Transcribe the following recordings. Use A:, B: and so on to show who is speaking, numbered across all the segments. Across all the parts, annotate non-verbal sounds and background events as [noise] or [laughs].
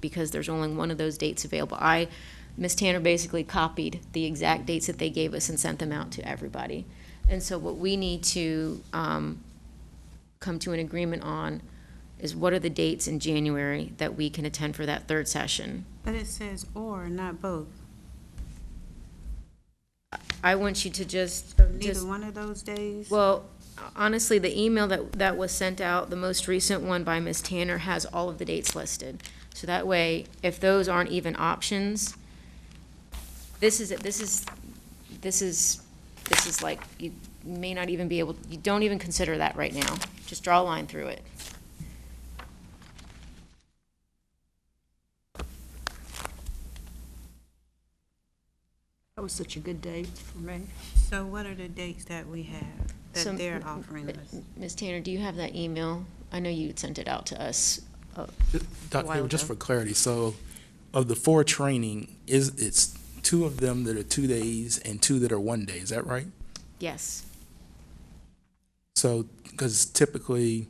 A: because there's only one of those dates available. I, Ms. Tanner basically copied the exact dates that they gave us and sent them out to everybody. And so what we need to um, come to an agreement on is what are the dates in January that we can attend for that third session?
B: But it says or, not both.
A: I want you to just,
B: So
A: just,
B: neither one of those days?
A: well, honestly, the email that, that was sent out, the most recent one by Ms. Tanner, has all of the dates listed. So that way, if those aren't even options, this is, this is, this is, this is like, you may not even be able, you don't even consider that right now. Just draw a line through it.
C: That was such a good day for me.
B: So what are the dates that we have,
A: So,
B: that they're
A: m-
B: offering
A: but,
B: us?
A: Ms. Tanner, do you have that email? I know you sent it out to us. uh,
D: Dr.
A: while
D: Faber, just
A: ago.
D: for clarity, so of the four training, is, it's two of them that are two days and two that are one day, is that right?
A: Yes,
D: So, because typically,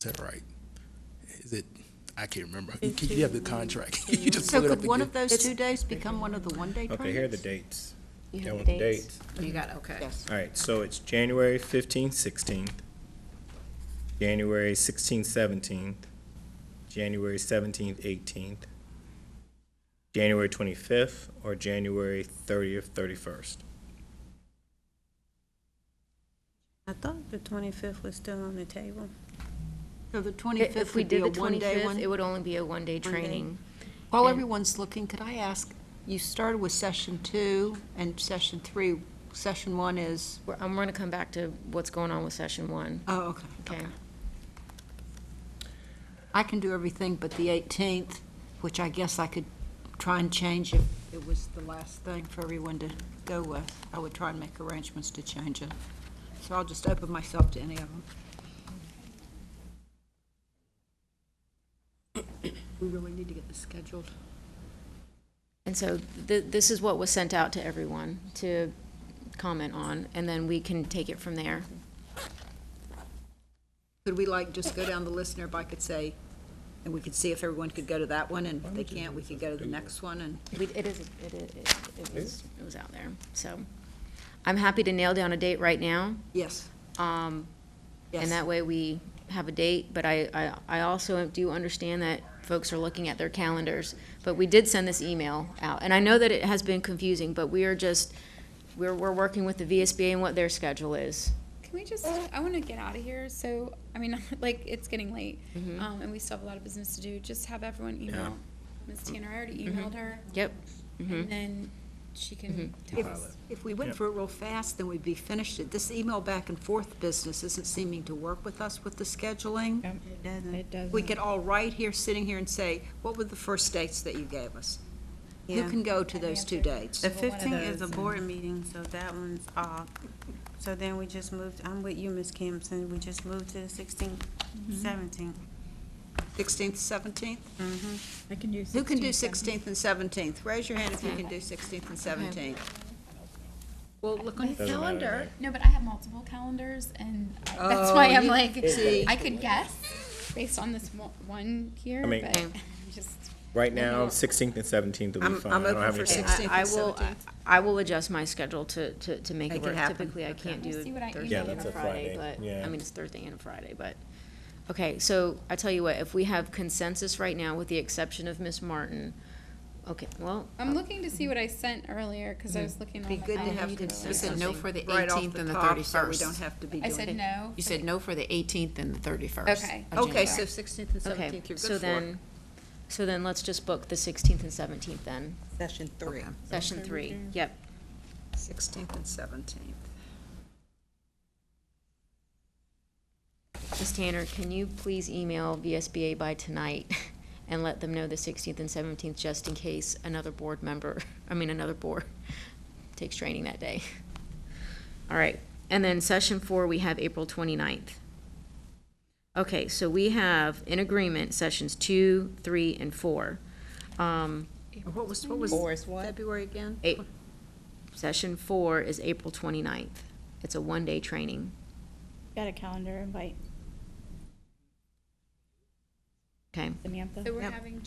D: is that right? Is it, I can't remember. You keep- you have the contract. [laughs] You just
C: So
D: pull it up
C: could one
D: again.
C: of those two days become one of the one-day
E: Okay, here are the
C: tournaments?
E: dates.
A: you
E: Done
A: have
E: with
A: the dates.
C: You got, okay.
E: All right, so it's January fifteenth, sixteenth, January sixteenth, seventeenth, January seventeenth, eighteenth, January twenty-fifth, or January thirtieth, thirty-first.
B: I thought the twenty-fifth was still on the table.
C: So the
A: If-
C: 25th
A: If we
C: would be
A: did
C: a
A: the
C: one-day
A: 25th, it
C: one?
A: would only be a one-day
C: day.
A: training.
C: While everyone's looking, could I ask, you started with session two and session three. Session one is,
A: We're- I'm going to come back to what's going on with session one,
C: oh, okay,
A: okay?
C: okay. I can do everything but the 18th, which I guess I could try and change if it was the last thing for everyone to go with. I would try and make arrangements to change it. So I'll just open myself to any of them. We really need to get this scheduled.
A: And so th- this is what was sent out to everyone to comment on, and then we can take it from there.
C: Could we like just go down the list and everybody could say, and we could see if everyone could go to that one, and if they can't, we could go to the next one, and
A: We- It is, it is- it it was, it was out there, so. I'm happy to nail down a date right now. um,
C: yes.
A: And that way we have a date, but I, I, I also do understand that folks are looking at their calendars. But we did send this email out, and I know that it has been confusing, but we are just, we're, we're working with the VSBA and what their schedule is.
F: Can we just? I want to get out of here. So I mean, [laughs] like it's getting late, um, and we still have a lot of business to do. Just have everyone email Ms. Tanner. I already
C: Mm-hmm.
F: emailed her,
A: Yep.
F: and then she can tell
C: If,
F: us.
C: if we went for it real fast, then we'd be finished. This email back and forth business isn't seeming to work with us with the scheduling.
B: It doesn't.
C: We could all right here, sitting here and say, what were the first dates that you gave us? Who
B: Yeah.
C: can go to those two dates?
B: The fifteenth is a board meeting, so that one's off. So then we just moved, I'm with you, Ms. Campson, we just moved to the sixteenth, seventeenth.
C: Sixteenth, seventeenth?
G: I can use
C: Who can do
G: 16, 17.
C: sixteenth and seventeenth? Raise your hand if you can do sixteenth and seventeenth. Well, look on your
E: Doesn't matter to
C: calendar.
E: me.
F: No, but I have multiple calendars, and I- that's why
C: Oh,
F: I'm
C: you-
F: like,
C: see.
F: I could guess based on this mo- one here,
E: I mean-
F: but [laughs] I'm just
E: Right now, sixteenth and seventeenth will be
C: I'm-
E: fine.
C: I'm
E: I don't
C: open
E: have
C: for
E: anything.
C: 16th and
A: I I will,
C: 17th.
A: I will adjust my schedule to, to, to make it
C: Make it
A: work.
C: happen.
A: Typically, I can't
F: We'll
A: do
F: see what I
A: Thursday
F: email
A: and
E: her.
A: a Friday,
E: Friday,
A: but, I
E: yeah.
A: mean, it's Thursday and a Friday, but. Okay, so I tell you what, if we have consensus right now, with the exception of Ms. Martin, okay, well,
F: I'm looking to see what I sent earlier because I was looking.
C: Be
F: on
C: good
F: the
C: to
F: calendar.
C: have
F: earlier.
C: consistency.
H: no for the
C: right off
H: 18th and the
C: top, So we
H: 31st.
C: don't have to be
F: I
C: doing.
F: said no.
H: You said no for the 18th and the 31st.
F: Okay.
H: of
C: Okay,
H: January.
C: so sixteenth and
A: Okay,
C: seventeenth, you're good for.
A: so then, so then let's just book the sixteenth and seventeenth then,
C: Session three.
A: session three, yep.
C: Sixteenth and seventeenth.
A: Ms. Tanner, can you please email VSBA by tonight [laughs] and let them know the sixteenth and seventeenth, just in case another board member, [laughs] I mean, another board [laughs] takes training that day? [laughs] All right, and then session four, we have April twenty-ninth. Okay, so we have in agreement sessions two, three, and four. Um,
C: What was, what was?
G: Four is what?
C: February again?
A: Eight, session four is April 29th. It's a one-day training.
G: Got a calendar invite.
A: Okay.
G: Samantha?
F: So we're having